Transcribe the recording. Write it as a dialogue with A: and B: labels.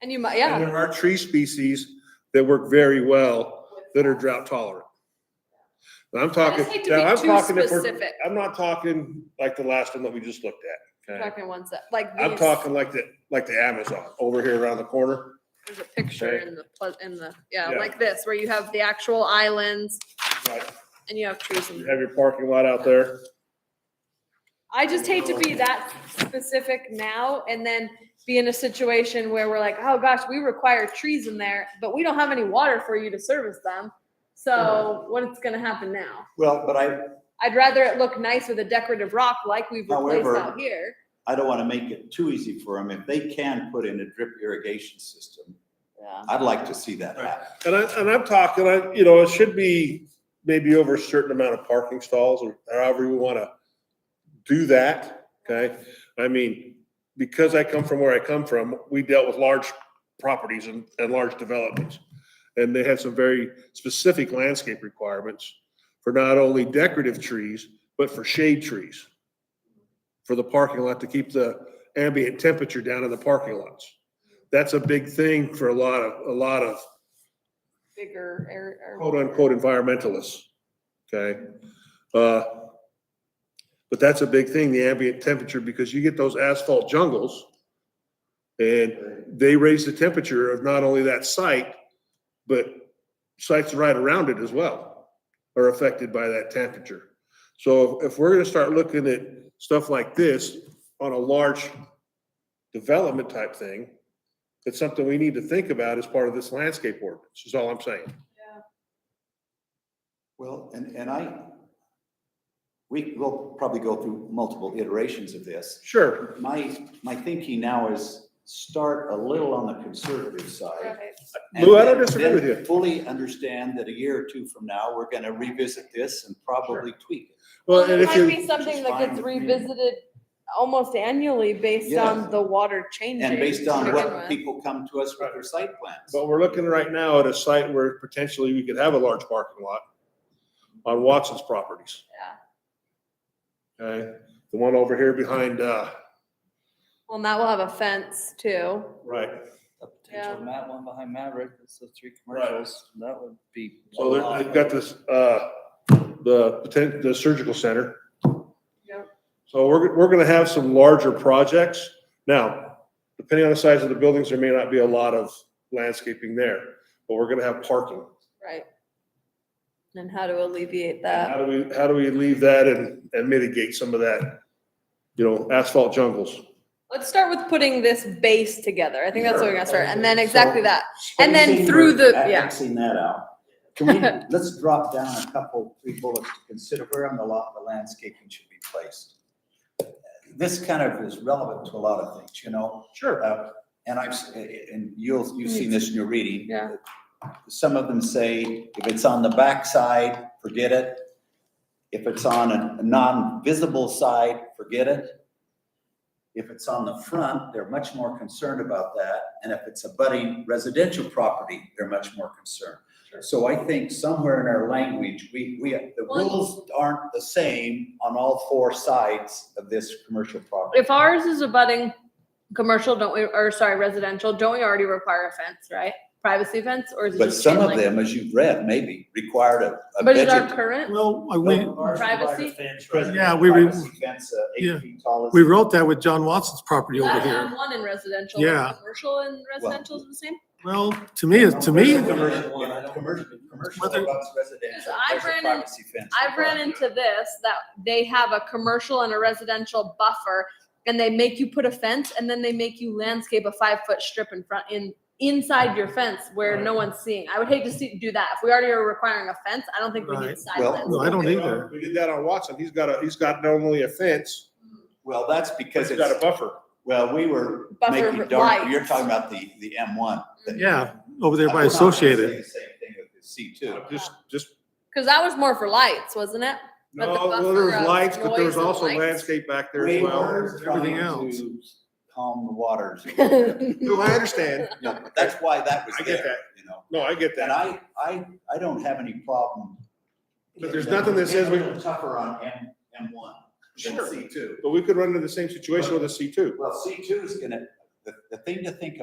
A: And you might,
B: And
A: yeah,
B: there are tree species that work very well that are drought tolerant. And I'm
A: I
B: talking,
A: just hate to
B: now I'm
A: be too
B: talking, if we're-
A: specific.
B: I'm not talking like the last one that we just looked at. okay?
A: Talking ones that, like
B: I'm
A: these.
B: talking like the, like the Amazon over here around the corner.
A: There's a picture
B: Okay.
A: in the, pl- in the, yeah,
B: Yeah.
A: like this, where you have the actual islands
B: Right,
A: and you have trees
B: You
A: and.
B: have your parking lot out there.
A: I just hate to be that specific now and then be in a situation where we're like, oh gosh, we require trees in there, but we don't have any water for you to service them. So what's gonna happen now?
C: Well, but I,
A: I'd rather it look nice with a decorative rock like we've replaced
C: However-
A: out here.
C: I don't want to make it too easy for them. If they can put in a drip irrigation system,
A: Yeah.
C: I'd like to see that happen.
B: And I, and I'm talking, I, you know, it should be maybe over a certain amount of parking stalls or however we wanna do that, okay? I mean, because I come from where I come from, we dealt with large properties and, and large developments. And they had some very specific landscape requirements for not only decorative trees, but for shade trees. For the parking lot to keep the ambient temperature down in the parking lots. That's a big thing for a lot of, a lot of
A: Bigger air. air-
B: quote unquote environmentalists, okay? Uh, But that's a big thing, the ambient temperature, because you get those asphalt jungles and they raise the temperature of not only that site, but sites right around it as well are affected by that temperature. So if we're gonna start looking at stuff like this on a large development type thing, it's something we need to think about as part of this landscape ordinance, is all I'm saying.
C: Well, and, and I, we will probably go through multiple iterations of this.
B: Sure.
C: My, my thinking now is start a little on the conservative side.
A: Right.
C: and
B: Lou, I don't
C: then-
B: disagree with
C: then
B: you.
C: Fully understand that a year or two from now, we're gonna revisit this and probably tweak it.
B: Well, and
A: It
B: if
A: might be
B: you,
A: something that
C: fine
A: gets
C: with me.
A: revisited almost annually based
C: Yeah.
A: on the water changing.
C: And based
A: to
C: on
A: begin
C: what
A: with.
C: people come to us with their site plans.
B: but we're looking right now at a site where potentially we could have a large parking lot on Watson's properties. Yeah. Okay, the one over here behind, uh,
A: Well, and that will have a fence too.
D: a
B: right,
A: Yeah.
D: potential Matt one behind Maverick, that's the three
B: Right.
D: commercials, that would be.
B: so there- they've got this, uh, the potent, the surgical center.
A: Yep.
B: So we're, we're gonna have some larger projects. Now, depending on the size of the buildings, there may not be a lot of landscaping there, but we're gonna have parking.
A: Right. And how to alleviate that.
B: How do we, how do we leave that and, and mitigate some of that, you know, asphalt jungles?
A: Let's start with putting this base together. I think that's what we're gonna start, and then
C: Sure.
A: exactly that. And then
C: Spacing,
A: through
C: we're
A: the- yeah.
C: Xing that out. Can we, let's drop down a couple, three bullets to consider where on the lot the landscaping should be placed. This kind of is relevant to a lot of things, you know,
B: Sure.
C: uh, and I've, s- and you'll, you've seen this in your reading.
A: Yeah.
C: Some of them say, if it's on the backside, forget it. If it's on a a non-visible side, forget it. If it's on the front, they're much more concerned about that, and if it's a budding residential property, they're much more concerned. So I think somewhere in our language, we, we, the
A: Well-
C: rules aren't the same on all four sides of this commercial property.
A: If ours is abutting commercial, don't we, or sorry, residential, don't we already require a fence, right? Privacy fence or is it
C: But
A: just
C: some
A: chain
C: of
A: link?
C: them, as you've read, maybe required a, a
A: But is our
C: veget-
A: current,
E: Well, I- we,
A: Privacy?
E: Yeah, we re-
C: Privacy fence, uh, eight
E: Yeah.
C: feet tall is-
E: we wrote that with John Watson's property over
A: not
E: here.
A: on one in residential,
E: Yeah.
A: but commercial and residential is the same?
E: Well, to me, to me,
C: Commercial, you know, commercial, commercial
E: Whether-
C: abuts residential,
A: I've
C: there's a
A: ran in-
C: privacy fence
A: I've ran
C: required.
A: into this, that they have a commercial and a residential buffer and they make you put a fence and then they make you landscape a five foot strip in front, in, inside your fence where no one's seeing. I would hate to see, do that. If we already are requiring a fence, I don't think we need
E: Right.
A: side
C: Well,
A: fence.
E: no, I don't either.
B: We did that on Watson. He's got a, he's got not only a fence,
C: Well, that's
B: he's
C: because it's.
B: got a buffer.
C: Well, we were
A: Buffer
C: making dark,
A: lights.
C: you're talking about the, the M one. that-
E: yeah, over there by
C: I'm not gonna say
E: Associated.
C: the Same thing with the C two.
B: Just, just,
A: Cause that was more for lights, wasn't it? But the
B: no, well,
A: buffer
B: there was
A: of
B: lights, but there
A: noise
B: was
A: and
B: also
A: lights.
B: landscape back there
C: We
B: as well.
C: were trying
E: everything else.
C: to Calm the waters. a little bit.
B: No, I understand.
C: No, but That's why that was
B: I get
C: there, you know,
B: No, I get that.
C: and I, I, I don't have any problem.
B: But there's nothing that says we-
C: Getting Tougher on M, M one than
B: Sure.
C: C two.
B: But we could run into the same situation with a C two.
C: Well, C two is gonna, the, the thing to think